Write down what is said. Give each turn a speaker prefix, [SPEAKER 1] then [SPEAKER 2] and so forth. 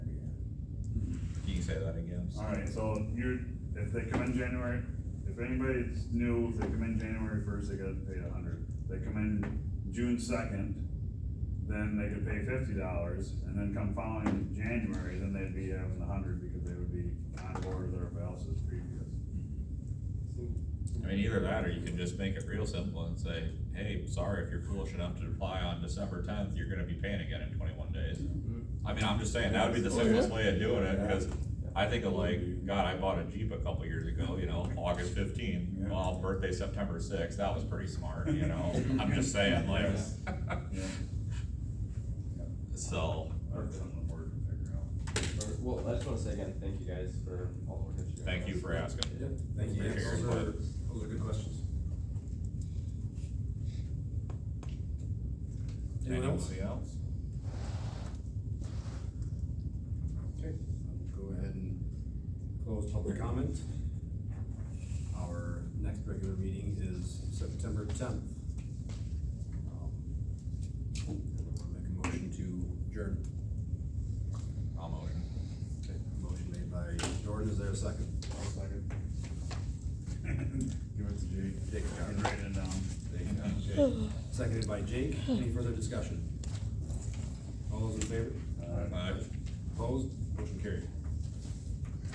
[SPEAKER 1] Say that again.
[SPEAKER 2] Uh,
[SPEAKER 3] Alright, so you're, if they come in January, if anybody's new, if they come in January first, they gotta pay a hundred. They come in June second, then they could pay fifty dollars, and then come following January, then they'd be having the hundred because they would be on board with their balances previous.
[SPEAKER 1] I mean, either that, or you can just make it real simple and say, hey, sorry, if you're foolish enough to apply on December tenth, you're gonna be paying again in twenty-one days. I mean, I'm just saying, that would be the simplest way of doing it, because I think of like, God, I bought a Jeep a couple years ago, you know, August fifteenth, well, birthday September sixth, that was pretty smart, you know, I'm just saying, like,
[SPEAKER 3] Yeah,
[SPEAKER 1] so,
[SPEAKER 3] that's something we're gonna figure out.
[SPEAKER 4] Or- Well, I just wanna say again, thank you guys for all the work that you guys.
[SPEAKER 1] thank you for asking.
[SPEAKER 2] Yep, thank you.
[SPEAKER 1] Thank you.
[SPEAKER 2] Those are, those are good questions. Anyone else?
[SPEAKER 1] Anybody else?
[SPEAKER 2] Okay, I'll go ahead and close public comment. Our next regular meeting is September tenth. Um, Make a motion to adjourn.
[SPEAKER 1] I'll motion.
[SPEAKER 2] Okay, Motion made by Jordan, is there a second?
[SPEAKER 3] second. Give it to Jake.
[SPEAKER 2] Jake,
[SPEAKER 3] You can write it down.
[SPEAKER 2] Seconded by Jake, any further discussion? All those in favor?
[SPEAKER 3] Alright.
[SPEAKER 1] Aye.
[SPEAKER 2] Opposed, motion carried.